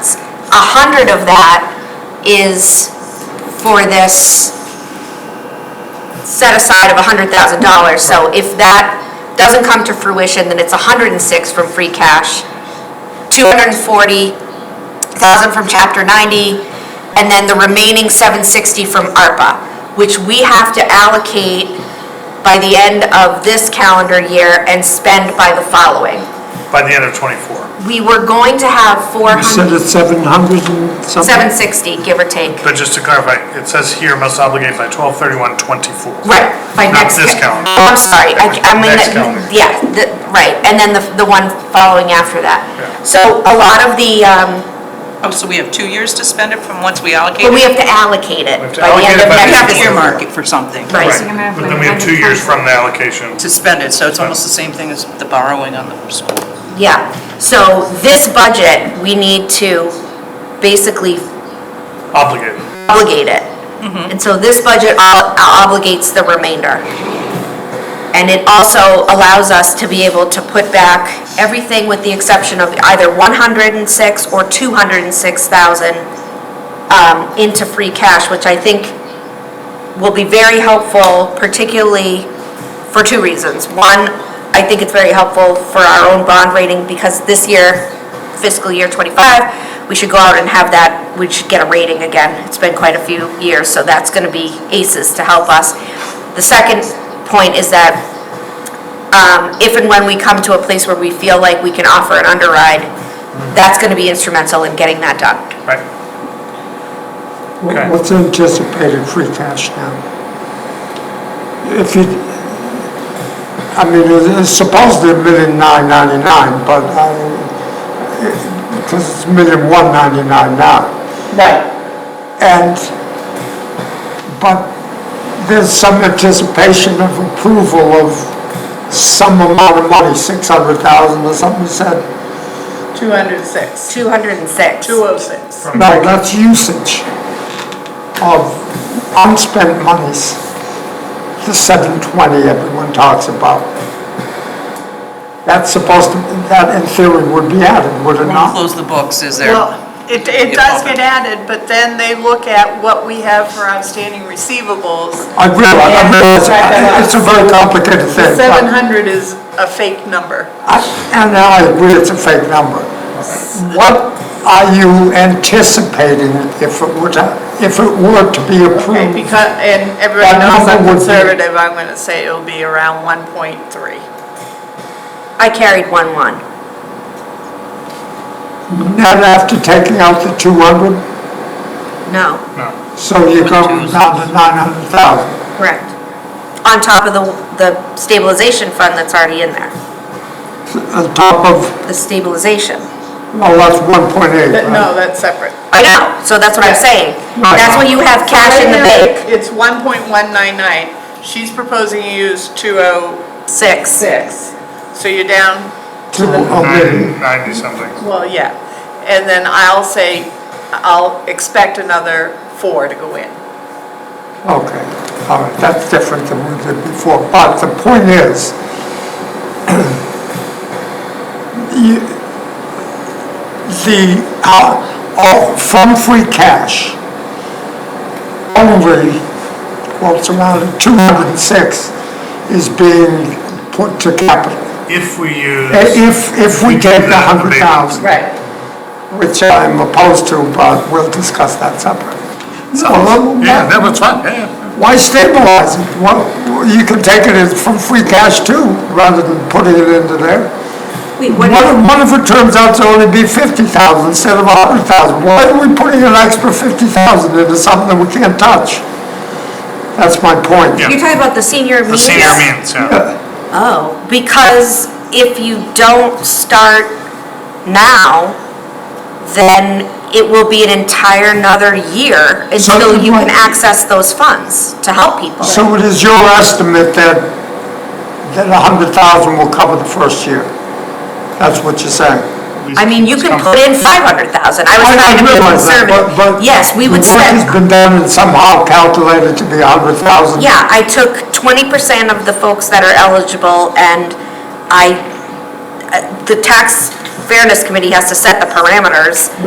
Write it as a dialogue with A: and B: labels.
A: a hundred of that is for this set aside of a hundred thousand dollars. So if that doesn't come to fruition, then it's a hundred and six from free cash, two hundred and forty thousand from chapter ninety, and then the remaining seven sixty from ARPA, which we have to allocate by the end of this calendar year and spend by the following.
B: by the end of '24.
A: We were going to have four
C: You said
A: hundred,
C: it's 700 and something?
A: seven sixty, give or take.
B: But just to clarify, it says here must obligate by 12/31/24.
A: Right, by
B: Not
A: next.
B: this
A: ca-
B: calendar.
A: Oh, I'm sorry, I, I mean,
B: Next calendar.
A: yeah, the, right, and then the, the one following after that.
B: Yeah.
A: So a lot of the, um,
D: Oh, so we have two years to spend it from once we allocate
A: but we
D: it?
A: have to allocate it
B: We have to
A: by the end
B: allocate it
A: of
B: by
D: We
A: next
B: the
D: have
B: end of
D: to
B: the
A: year.
B: year.
D: earmark it for something
A: Right.
B: Right, but then we have two years from the allocation.
D: to spend it, so it's almost the same thing as the borrowing on the school.
A: Yeah, so this budget, we need to basically
B: Obligated.
A: obligate it. And so this budget ob- obligates the remainder. And it also allows us to be able to put back everything with the exception of either 106 or 206,000 um, into free cash, which I think will be very helpful, particularly for two reasons. One, I think it's very helpful for our own bond rating because this year, fiscal year 25, we should go out and have that, we should get a rating again. It's been quite a few years, so that's going to be aces to help us. The second point is that um, if and when we come to a place where we feel like we can offer an underride, that's going to be instrumental in getting that done.
B: Right.
C: Wha- What's anticipated free cash now? If you, I mean, it- it's supposed to be million nine ninety-nine, but I, because it's million one ninety-nine now.
A: Right.
C: And, but there's some anticipation of approval of some amount of money, 600,000 or something you said.
E: 206,
A: 206.
E: 206.
C: No, that's usage of unspent monies, the 720 everyone talks about. That's supposed to, that in theory would be added, would it
D: Won't
C: not?
D: close the books, is there?
E: Well, it, it does get added, but then they look at what we have for outstanding receivables.
C: I realize, I realize, it's a very complicated thing.
E: The
C: but-
E: 700 is a fake number.
C: I- And I agree, it's a fake number. What are you anticipating if it were to, if it were to be
E: Okay,
C: approved?
E: because, and everybody
C: That
E: knows
C: number Hmm.
E: I'm
C: would be-
E: conservative, I'm gonna say it'll be around 1.3.
A: I carried 1-1.
C: Not after taking out the 200,
A: No.
C: so you go down to 900,000.
A: Correct. On top of the, the stabilization fund that's already in there,
C: On top of,
A: the stabilization.
C: well, that's 1.8,
E: But
C: right?
E: no, that's separate.
A: I know, so that's what I'm saying. That's when you have cash in the bank,
E: It's 1.199. She's proposing you use 206.
A: six.
E: So you're down
C: Two- oh, really?
B: 90 something.
E: Well, yeah, and then I'll say, I'll expect another four to go in.
C: Okay, all right, that's different than we did before, but the point is, you- the, uh, all- from free cash, only, well, it's around 206 is being put to capital.
B: If we use.
C: I- Eh, If, if we take the 100,000,
E: Right.
C: which I'm opposed to, but we'll discuss that separately. So, uh,
B: Yeah, that was fine, yeah, yeah.
C: why stabilize it? Well, you can take it as from free cash too, rather than putting it into there. What if, what if it turns out to only be fifty thousand instead of a hundred thousand? Why are we putting an extra fifty thousand into something that we can't touch? That's my point.
B: Yeah.
A: You're talking about the senior
B: The
A: meals?
B: senior means, yeah.
A: Oh, because if you don't start now, then it will be an entire another year
C: So
A: until you can
C: you-
A: access those funds to help people.
C: So it is your estimate that, that a hundred thousand will cover the first year? That's what you're saying?
A: I mean, you can put in five hundred thousand, I was
C: I
A: trying to be
C: realize that,
A: conservative.
C: but- but
A: Yes, we would
C: The work has
A: spend,
C: been done and somehow calculated to be a hundred thousand.
A: yeah, I took twenty percent of the folks that are eligible, and I, uh, the tax fairness committee has to set the parameters,